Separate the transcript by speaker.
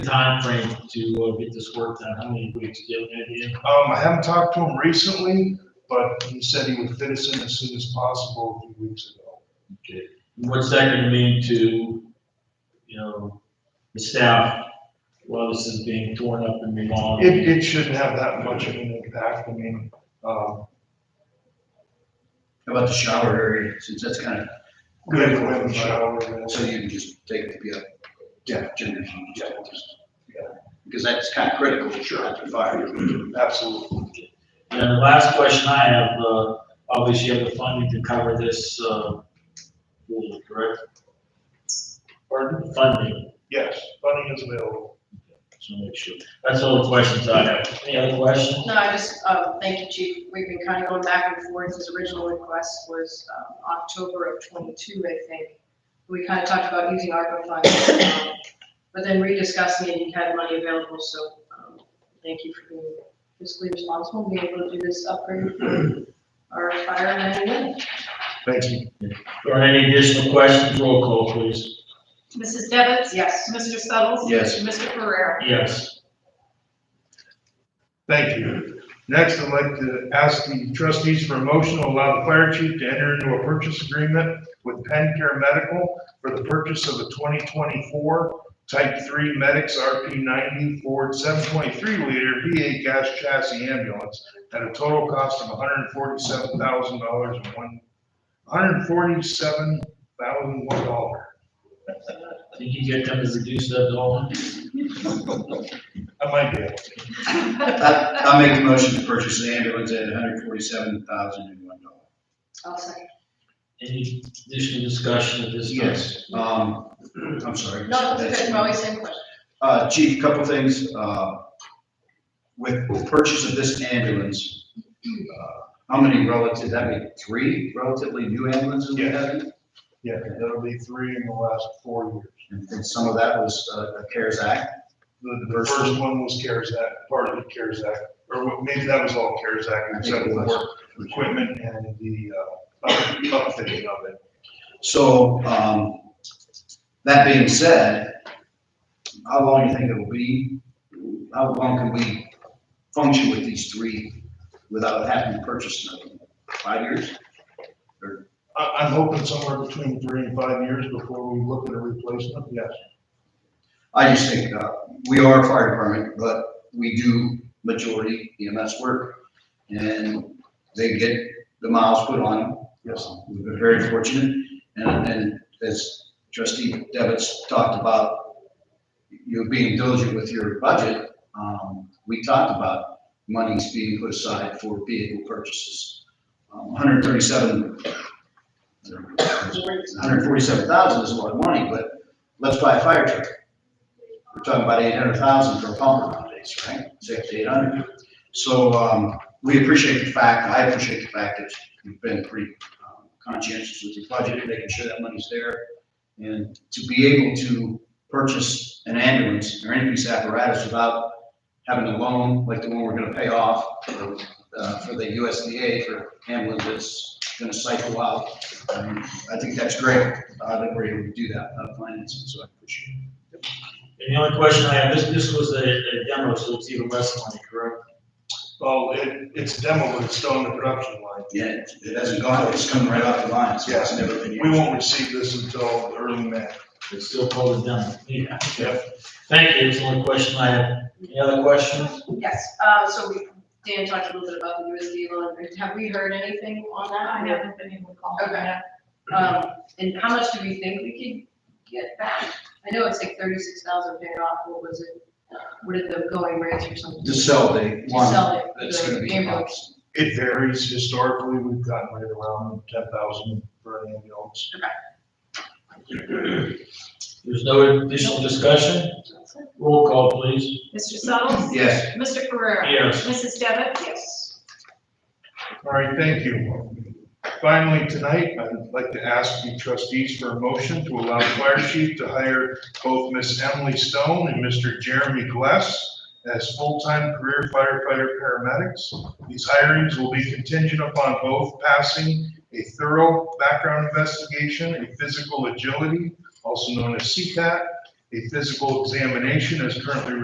Speaker 1: timeframe to uh, get this work done? How many weeks, do you have an idea?
Speaker 2: Um, I haven't talked to him recently, but he said he would fit us in as soon as possible a few weeks ago.
Speaker 1: Okay. What's that gonna mean to, you know, the staff while this is being torn up and remodeled?
Speaker 2: It, it shouldn't have that much of an impact, I mean, um,
Speaker 3: How about the shower area, since that's kind of,
Speaker 2: good when the shower is.
Speaker 3: so you can just take the, uh, yeah.
Speaker 2: Yeah.
Speaker 3: Genders, you just, yeah, because that's kind of critical, sure, after fire.
Speaker 2: Absolutely.
Speaker 1: And the last question I have, uh, obviously you have the funding to cover this, uh, pool, correct? Pardon? The Funding,
Speaker 2: Yes, funding is available.
Speaker 1: so make sure. That's all the questions I have. Any other questions?
Speaker 4: No, I just, um, thank you, Chief. We've been kind of going back and forth. His original request was um, October of '22, I think. We kind of talked about using ARPA funds, um, but then rediscussing it, you had money available, so um, thank you for being fiscally responsible, and being able to do this upgrade for our firemen.
Speaker 2: Thank you.
Speaker 1: Or any additional questions? Roll call, please.
Speaker 5: Mrs. Devitt?
Speaker 4: Yes.
Speaker 5: Mr. Suddles?
Speaker 3: Yes.
Speaker 5: Mr. Ferrera?
Speaker 1: Yes.
Speaker 2: Thank you. Next, I'd like to ask the trustees for a motion to allow the fire chief to enter into a purchase agreement with Penn Care Medical for the purchase of a 2024 Type 3 Medics RP90 Ford 7.3 liter V8 gas chassis ambulance at a total cost of $147,000 and one, $147,001.
Speaker 1: Did you get them to reduce that dollar?
Speaker 2: I might be able to.
Speaker 3: I- I'll make the motion to purchase the ambulance at hundred forty-seven thousand and one dollars.
Speaker 4: I'll second.
Speaker 1: Any additional discussion at this time?
Speaker 3: Yes, um, I'm sorry.
Speaker 4: No, that's okay. We're always saying question.
Speaker 3: Uh, Chief, a couple things. uh, With the purchase of this ambulance, uh, how many relative, that'd be three relatively new ambulances we have?
Speaker 2: Yeah, that'll be three in the last four years.
Speaker 3: And and some of that was uh, CARES Act.
Speaker 2: The, the first one was CARES Act, part of the CARES Act, or what- maybe that was all CARES Act, except for work equipment and the, uh, upfitting of it.
Speaker 3: So, um, that being said, how long do you think it will be? How long can we function with these three without having to purchase another? one? Five years?
Speaker 2: I, I'm hoping somewhere between three and five years before we look at a replacement, yes.
Speaker 3: I just think, uh, we are a fire department, but we do majority EMS work. And they get the miles put on them.
Speaker 2: Yes.
Speaker 3: We've been very fortunate. And, and as trustee Devitt's talked about, you being diligent with your budget, um, we talked about monies being put aside for vehicle purchases. Um, hundred thirty-seven, hundred forty-seven thousand is a lot of money, but let's buy a fire truck. We're talking about eight hundred thousand for a pumper nowadays, right? Six to eight hundred. So, um, we appreciate the fact, I appreciate the fact that you've been pretty um, conscientious with your budget, making sure that money's there. And to be able to purchase an ambulance or any piece of apparatus without having a loan, like the one we're gonna pay off for, uh, for the USDA for ambulance that's gonna cycle out. um, I think that's great, uh, that we're able to do that, uh, financing, so I appreciate it.
Speaker 1: And the only question I have, this, this was a a demo, so it's even less money, correct?
Speaker 2: Well, it, it's demo, but it's still in the production line.
Speaker 3: Yeah, it- it hasn't gone, it's coming right off the line, so it's never been used.
Speaker 2: We won't receive this until early May.
Speaker 1: It's still called a demo. Yeah. Thank you, it's the only question I have. Any other questions?
Speaker 4: Yes, uh, so we- Dan talked a little bit about the USD loan. Have we heard anything on that?
Speaker 5: I haven't been able to call.
Speaker 4: Okay. Um, and how much do we think we could get back? I know it's like thirty-six thousand paid off, what was it? Uh, What are the going rates or something?
Speaker 3: To sell the
Speaker 4: To
Speaker 3: one
Speaker 4: sell it,
Speaker 3: that's gonna be.
Speaker 4: the ambulance.
Speaker 2: It varies historically, we've gotten right around ten thousand for an ambulance.
Speaker 1: There's no additional discussion? Roll call, please.
Speaker 5: Mr. Suddles?
Speaker 3: Yes.
Speaker 5: Mr. Ferrera?
Speaker 1: Yes.
Speaker 5: Mrs. Devitt?
Speaker 4: Yes.
Speaker 2: All right, thank you. Finally, tonight, I'd like to ask the trustees for a motion to allow the fire chief to hire both Miss Emily Stone and Mr. Jeremy Gless as full-time career firefighter paramedics. These hirings will be contingent upon both passing a thorough background investigation, a physical agility, also known as CPAT, a physical examination as currently